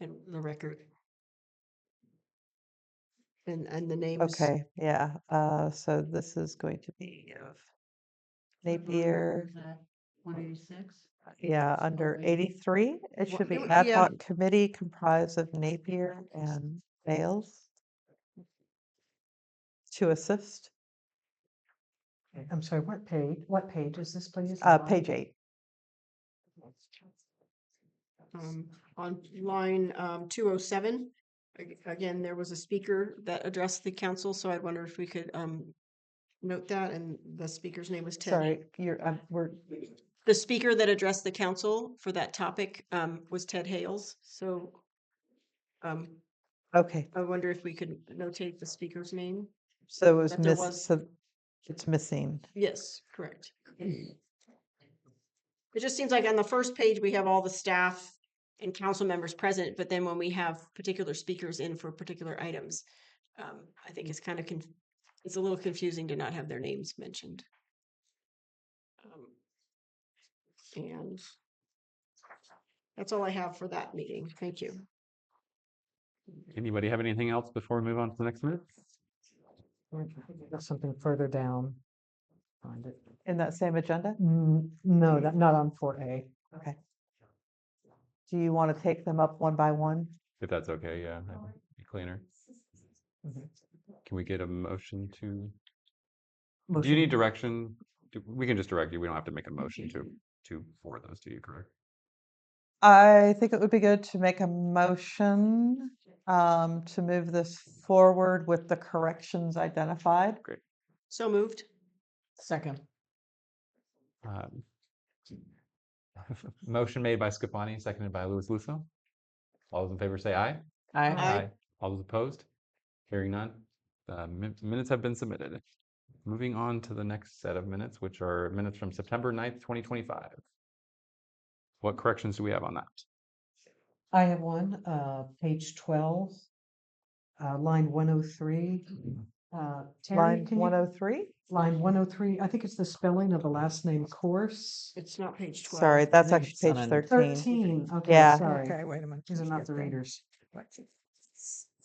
in the record. And, and the names. Okay, yeah, uh, so this is going to be of Mm-hmm. Napier, Uh, One eighty-six? yeah, under eighty-three. It Wha- should be it would- ad yeah. hoc committee comprised of Napier and Bales to assist, Okay, I'm sorry, what page, what page is this, please? uh, page eight. um, on line um, 207. ag- Again, there was a speaker that addressed the council, so I wonder if we could um, note that, and the speaker's name was Ted. Sorry, you're, um, we're, The speaker that addressed the council for that topic um, was Ted Hales, so um, okay, I wonder if we could notate the speaker's name? so it was that there miss, was- so it's missing. Yes, correct. It just seems like on the first page, we have all the staff and council members present, but then when we have particular speakers in for particular items, um, I think it's kind of, conf- it's a little confusing to not have their names mentioned. Um, And that's all I have for that meeting. Thank you. Anybody have anything else before we move on to the next minute? That's something further down. Find it. In that same agenda, Mm, No, not not on four A. okay. Do you want to take them up one by one? If that's okay, yeah, that would be cleaner. Can we get a motion to, do you need direction? Do- We can just direct you. We don't have to make a motion to, to, for those to you, correct? I think it would be good to make a motion um, to move this forward with the corrections identified. So moved. Second. Um, Motion made by Scipani, seconded by Louis Lusso. All those in favor say aye. I, Aye. All those opposed? Hearing none, the min- minutes have been submitted. Moving on to the next set of minutes, which are minutes from September 9th, twenty twenty-five. What corrections do we have on that? I have one, uh, page twelve. Uh, line one oh three. Uh, Terry, Line can one you, oh three? line one oh three, I think it's the spelling of the last name course. It's not page twelve. Sorry, that's think actually it's page thirteen. Thirteen, okay, Yeah. sorry. Okay, wait a minute. These are not the readers.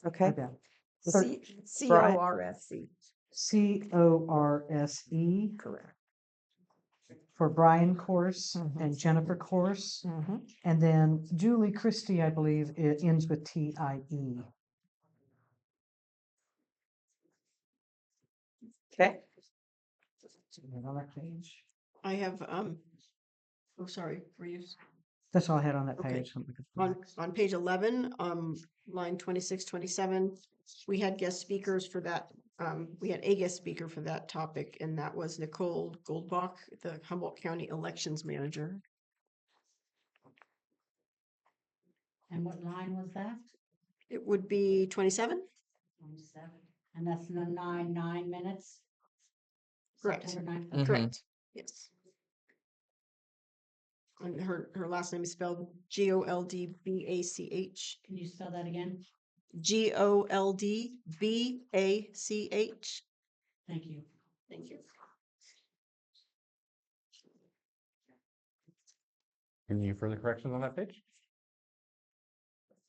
Okay. Thir- C O Brian. R S E. C. C O R S E. Correct. For Brian Course Mm-hmm. Mhm. and Jennifer Course. Mhm. And then Julie Christie, I believe, it ends with T I E. Okay, On that page. I have, um, oh, sorry, were you? That's all I had on that Okay. page. On, on page eleven, um, line 26, 27, we had guest speakers for that, um, we had a guest speaker for that topic, and that was Nicole Goldbach, the Humboldt County Elections Manager. And what line was that? It would be twenty-seven? Twenty-seven. And that's the nine, nine minutes? Correct. September ninth. Correct. Yes. And her, her last name is spelled G O L D B A C H, Can you spell that again? G O L D B A C H. Thank you. Thank you. Any further corrections on that page?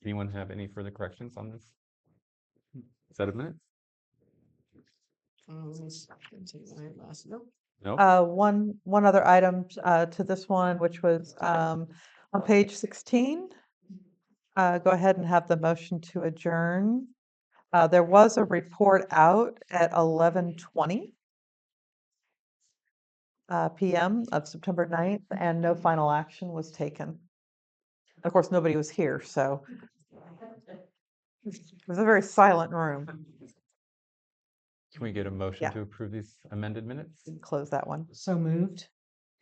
Anyone have any further corrections on this? Set of minutes? Um, let me see, I didn't see my last- nope. No? Uh, one, one other item uh, to this one, which was um, on page sixteen. Uh, go ahead and have the motion to adjourn. Uh, there was a report out at eleven twenty uh, PM of September 9th, and no final action was taken. Of course, nobody was here, so it was a very silent room. Can we get a motion yeah. to approve these amended minutes? Didn't Close that one. So moved.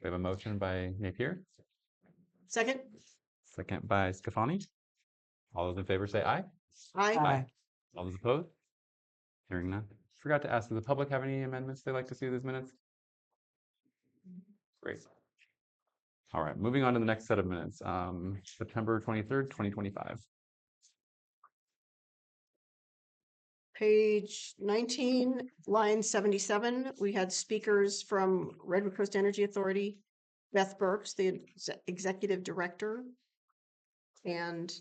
We have a motion by Napier, Second? second by Scafani. All those in favor say aye. Aye. Aye. All those opposed? Hearing none. Forgot to ask, does the public have any amendments they'd like to see to these minutes? Great. All right, moving on to the next set of minutes, um, September twenty-third, twenty twenty-five. Page nineteen, line seventy-seven, we had speakers from Redwood Coast Energy Authority, Beth Burks, the ex- executive director, and